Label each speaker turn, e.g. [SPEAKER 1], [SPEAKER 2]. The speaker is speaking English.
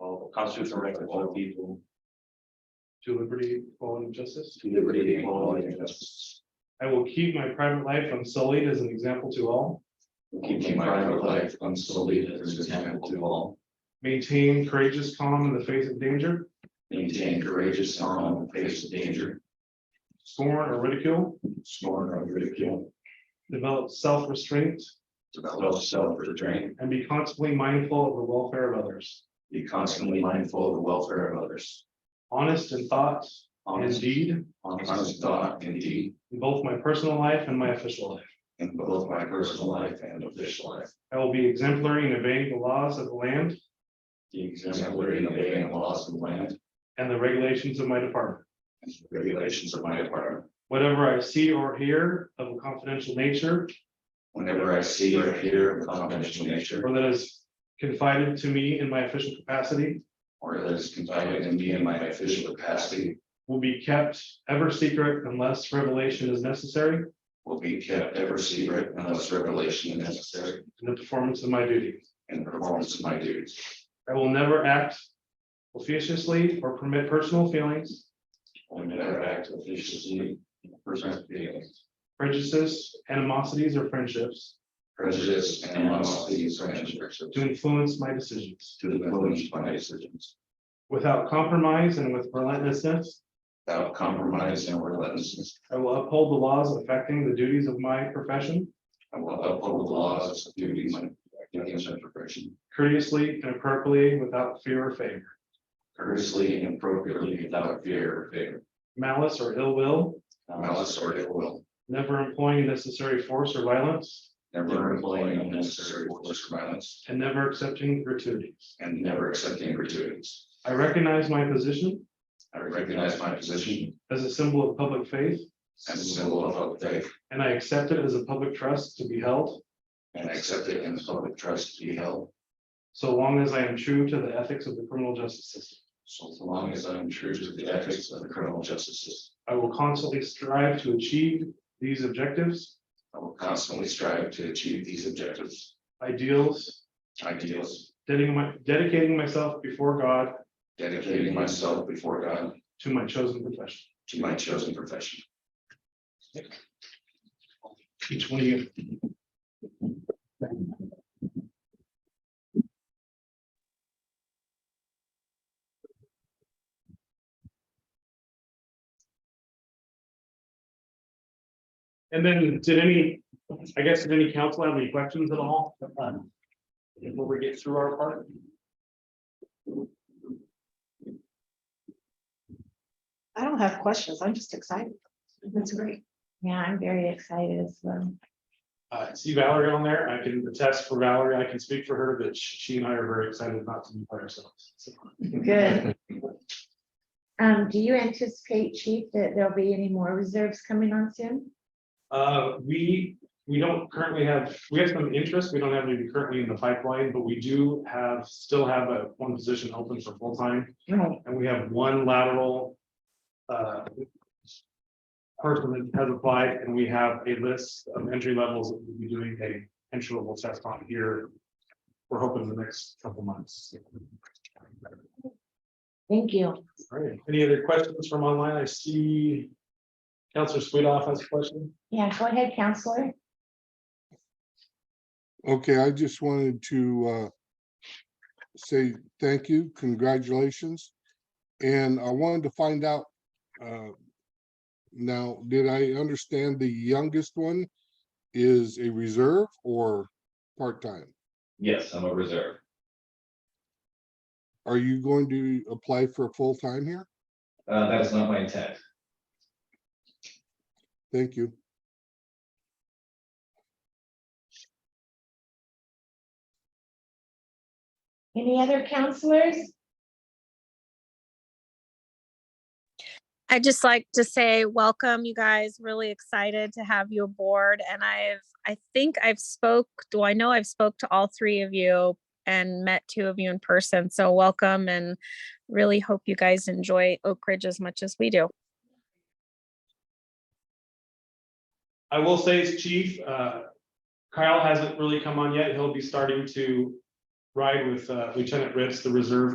[SPEAKER 1] of constitutional rights of all people,
[SPEAKER 2] to liberty, equality, and justice.
[SPEAKER 1] to liberty, equality, and justice.
[SPEAKER 2] I will keep my private life unsullied as an example to all,
[SPEAKER 1] Keeping my private life unsullied as an example to all,
[SPEAKER 2] maintain courageous calm in the face of danger,
[SPEAKER 1] maintain courageous calm in the face of danger,
[SPEAKER 2] scorn or ridicule,
[SPEAKER 1] scorn or ridicule,
[SPEAKER 2] develop self-restraint,
[SPEAKER 1] develop self-restraint,
[SPEAKER 2] and be constantly mindful of the welfare of others,
[SPEAKER 1] be constantly mindful of the welfare of others.
[SPEAKER 2] honest in thought and
[SPEAKER 1] Honest,
[SPEAKER 2] deed,
[SPEAKER 1] honest thought and deed,
[SPEAKER 2] in both my personal life and my official life.
[SPEAKER 1] in both my personal life and official life.
[SPEAKER 2] I will be exemplary in obeying the laws of the land
[SPEAKER 1] The exemplary and obeying the laws of the land
[SPEAKER 2] and the regulations of my department.
[SPEAKER 1] and regulations of my department.
[SPEAKER 2] Whatever I see or hear of a confidential nature
[SPEAKER 1] Whenever I see or hear of confidential nature
[SPEAKER 2] or that is confided to me in my official capacity
[SPEAKER 1] or that is confided to me in my official capacity
[SPEAKER 2] will be kept ever secret unless revelation is necessary
[SPEAKER 1] will be kept ever secret unless revelation is necessary
[SPEAKER 2] in the performance of my duty.
[SPEAKER 1] in the performance of my duties.
[SPEAKER 2] I will never act officiously or permit personal feelings,
[SPEAKER 1] I will never act officiously, present feelings,
[SPEAKER 2] prejudices, animosities, or friendships
[SPEAKER 1] prejudice, and animosity, or friendships
[SPEAKER 2] to influence my decisions.
[SPEAKER 1] to influence my decisions
[SPEAKER 2] Without compromise and with relentlessness,
[SPEAKER 1] without compromise and relentlessness.
[SPEAKER 2] I will uphold the laws affecting the duties of my profession
[SPEAKER 1] I will uphold the laws of duties and duties of profession.
[SPEAKER 2] courteously and appropriately without fear or favor,
[SPEAKER 1] courteously and appropriately without fear or favor,
[SPEAKER 2] malice or ill will,
[SPEAKER 1] malice or ill will,
[SPEAKER 2] never employing necessary force or violence,
[SPEAKER 1] never employing unnecessary force or violence,
[SPEAKER 2] and never accepting gratuities.
[SPEAKER 1] and never accepting gratuities.
[SPEAKER 2] I recognize my position
[SPEAKER 1] I recognize my position
[SPEAKER 2] as a symbol of public faith,
[SPEAKER 1] as a symbol of public faith
[SPEAKER 2] and I accept it as a public trust to be held
[SPEAKER 1] and accept it in the public trust to be held
[SPEAKER 2] so long as I am true to the ethics of the criminal justice system.
[SPEAKER 1] so long as I am true to the ethics of the criminal justice system.
[SPEAKER 2] I will constantly strive to achieve these objectives,
[SPEAKER 1] I will constantly strive to achieve these objectives,
[SPEAKER 2] ideals,
[SPEAKER 1] ideals,
[SPEAKER 2] dedicating my- dedicating myself before God
[SPEAKER 1] dedicating myself before God
[SPEAKER 2] to my chosen profession.
[SPEAKER 1] to my chosen profession.
[SPEAKER 2] Each one of you. And then did any, I guess, did any council have any questions at all? Before we get through our part?
[SPEAKER 3] I don't have questions. I'm just excited. That's great.
[SPEAKER 4] Mm-hmm. Yeah, I'm very excited as well.
[SPEAKER 2] Uh, see Valerie on there. I can attest for Valerie. I can speak for her that sh- she and I are very excited not to be by ourselves. So,
[SPEAKER 4] Good. Um, do you anticipate, chief, that there'll be any more reserves coming on soon?
[SPEAKER 2] Uh, we, we don't currently have, we have some interest. We don't have any currently in the pipeline, but we do have, still have a one position open for full time
[SPEAKER 4] Right.
[SPEAKER 2] and we have one lateral. uh, Person that has applied and we have a list of entry levels that we'll be doing a entry level test on here. We're hoping the next couple months.
[SPEAKER 4] Thank you.
[SPEAKER 2] All right, any other questions from online? I see Counselor Sweetoff has a question.
[SPEAKER 4] Yeah, go ahead, counselor.
[SPEAKER 5] Okay, I just wanted to uh, say thank you, congratulations. And I wanted to find out, uh, now, did I understand the youngest one is a reserve or part-time?
[SPEAKER 6] Yes, I'm a reserve.
[SPEAKER 5] Are you going to apply for a full-time here?
[SPEAKER 6] Uh, that's not my intent.
[SPEAKER 5] Thank you.
[SPEAKER 4] Any other counselors?
[SPEAKER 7] I'd just like to say welcome, you guys. Really excited to have you aboard. And I've, I think I've spoke, do I know I've spoke to all three of you and met two of you in person. So welcome and really hope you guys enjoy Oak Ridge as much as we do.
[SPEAKER 2] I will say as chief, uh, Kyle hasn't really come on yet. He'll be starting to ride with uh, Lieutenant Ritz, the reserve